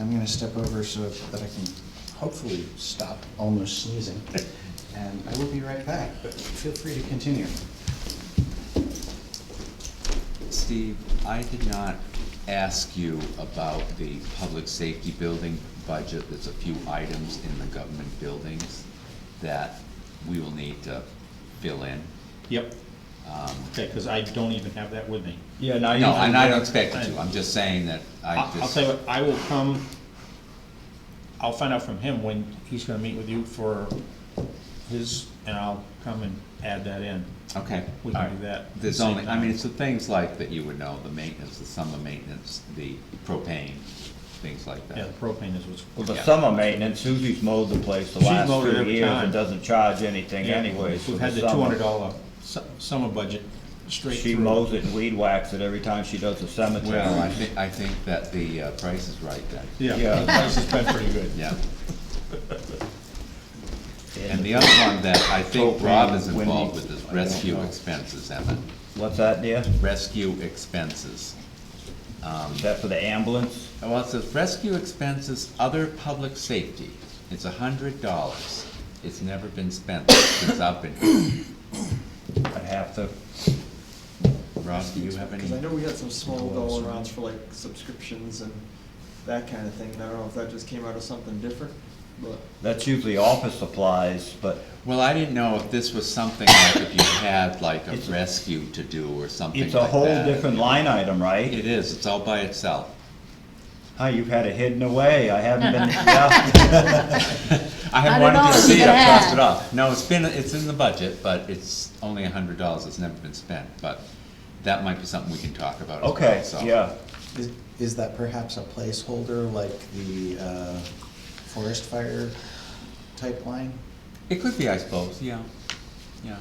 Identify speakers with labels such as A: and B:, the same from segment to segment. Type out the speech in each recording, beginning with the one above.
A: I'm gonna step over so that I can hopefully stop almost sneezing. And I will be right back, but feel free to continue.
B: Steve, I did not ask you about the public safety building budget. There's a few items in the government buildings that we will need to fill in.
C: Yep,
B: Um,
C: okay, because I don't even have that with me.
D: Yeah, now you.
B: No, and I don't expect you to. I'm just saying that I
C: I'll,
B: just.
C: I'll tell you what, I will come, I'll find out from him when he's gonna meet with you for his, and I'll come and add that in.
B: Okay.
C: We can
B: all right.
C: do that at the
B: There's
C: same
B: only, I
C: time.
B: mean, it's the things like that you would know, the maintenance, the summer maintenance, the propane, things like
C: Yeah,
B: that.
C: the propane is what's,
D: Well, the
B: Yeah.
D: summer maintenance, Susie's mowed the place the
C: She's
D: last
C: mowed it
D: three
C: every
D: years
C: time.
D: and doesn't charge anything
C: Yeah,
D: anyways.
C: We've
D: for
C: had the two
D: summer.
C: hundred dollar summer budget straight through.
D: She mows it and weed whacks it every time she does the cemetery.
B: Well, I think, I think that the uh, price is right then.
C: Yeah,
D: Yeah.
C: the price has been pretty good.
B: Yeah. And
D: And
B: the other one that I think
D: Propane,
B: Rob is involved
D: Wendy's.
B: with is
D: I don't
B: rescue
D: know.
B: expenses, Emmett.
D: What's that, dear?
B: Rescue expenses.
D: Is that for the ambulance?
B: Well, it says rescue expenses, other public safety. It's a hundred dollars. It's never been spent since I've been here.
D: I have to,
B: Rob, do you have any?
E: Because I know we had some small dollar amounts for like subscriptions and that kind of thing, and I don't know if that just came out of something different, but.
D: that's usually office supplies, but
B: Well, I didn't know if this was something like if you had like a
D: It's-
B: rescue to do or something like
D: it's
B: that.
D: a whole different line item, right?
B: It is, it's all by itself.
D: Hi, you've had it hidden away, I haven't been, yeah,
B: I
F: I
B: have
F: don't
B: wanted
F: know,
B: to see
F: you
B: it, I
F: had.
B: crossed it off. No, it's been, it's in the budget, but it's only a hundred dollars, it's never been spent, but that might be something we can talk about as well,
D: okay,
B: so.
D: yeah.
A: Is, is that perhaps a placeholder like the, uh, forest fire type line?
B: It could be, I suppose, yeah, yeah.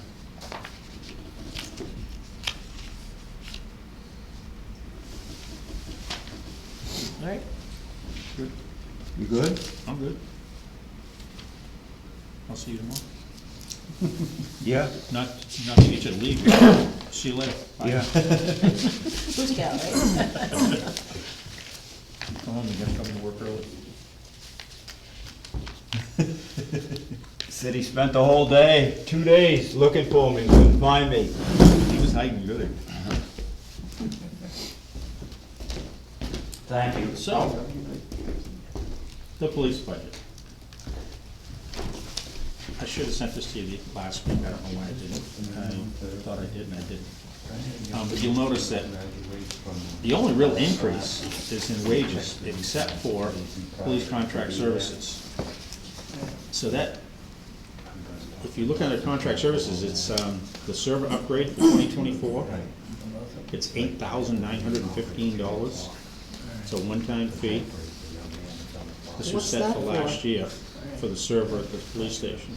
C: All right,
A: You good?
C: I'm good. I'll see you tomorrow.
D: Yeah.
C: Not, not to get you to leave, see you later. Bye.
D: Yeah.
F: Who's it go, right?
C: Come home, you gotta come to work early.
D: City spent the whole day, two days, looking for me, couldn't find me.
C: He was hiding good.
D: Thank you.
C: So, the police budget. I should have sent this to you the last week, I don't know why I didn't. I thought I did and I didn't. Um, but you'll notice that the only real increase is in wages, except for police contract services. So that, if you look at the contract services, it's, um, the server upgrade for twenty twenty-four. It's eight thousand nine hundred and fifteen dollars. It's a one-time fee. This was
F: What's
C: set
F: that
C: for
F: for?
C: last year, for the server at the police station.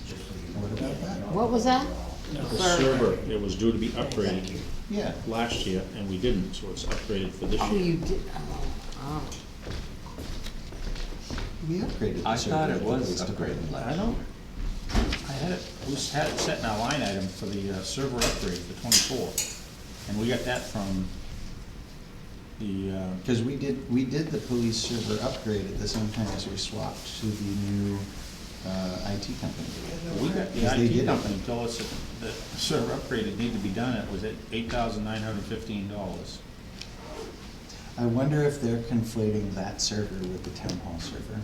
F: What was that?
C: The server, it was due to be upgraded
A: Yeah.
C: last year, and we didn't, so it's upgraded for this
F: Oh,
C: year.
F: you did, oh, oh.
A: We upgraded. the
B: I thought
A: server
B: it
A: to
B: was
A: the-
B: upgraded
C: I
B: last year.
C: don't, I had it, we s- had it set in our line item for the uh, server upgrade for twenty-four, and we got that from the, uh,
A: Because we did, we did the police server upgrade at the same time as we swapped to the new uh, IT company.
C: We got the
A: Because they
C: IT
A: did it.
C: company told us that the server upgrade that needed to be done, it was at eight thousand nine hundred fifteen dollars.
A: I wonder if they're conflating that server with the town hall server.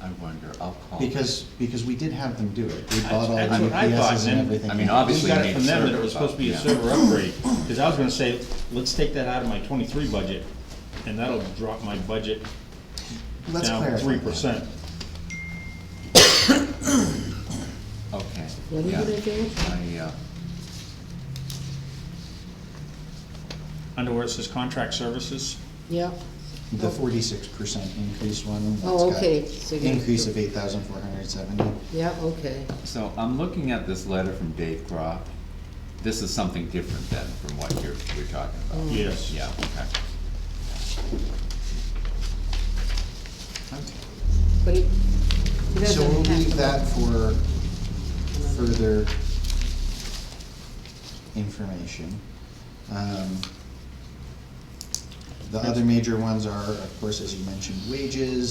B: I wonder, I'll call.
A: Because, because we did have them do it. We bought all the
C: That's what Oh. I thought,
A: UPSs
C: and
A: and everything.
B: I mean,
A: else.
B: obviously,
C: We got
B: we
C: it
B: need
C: from
B: a
C: them that
B: server,
C: it was supposed to be a
B: but,
C: server upgrade, because I was gonna say, let's take that out of my twenty-three budget, and that'll drop my budget
A: Let's
C: down
A: clarify
C: three
A: that.
C: percent.
B: Okay.
F: What are you
B: yeah.
F: gonna do?
B: I, uh,
C: Under where it says contract services,
F: Yep,
A: The forty-six percent increase one. that's
F: Oh,
A: got
F: okay, so you-
A: Increase of eight thousand four hundred seventy.
F: yep, okay.
B: so I'm looking at this letter from Dave Croft. This is something different then from what you're, you're talking about.
C: yes.
B: Yeah, okay.
F: But he, he
A: So
F: doesn't
A: we'll
F: have
A: leave
F: to-
A: that for further information. Um, The other major ones are, of course, as you mentioned, wages,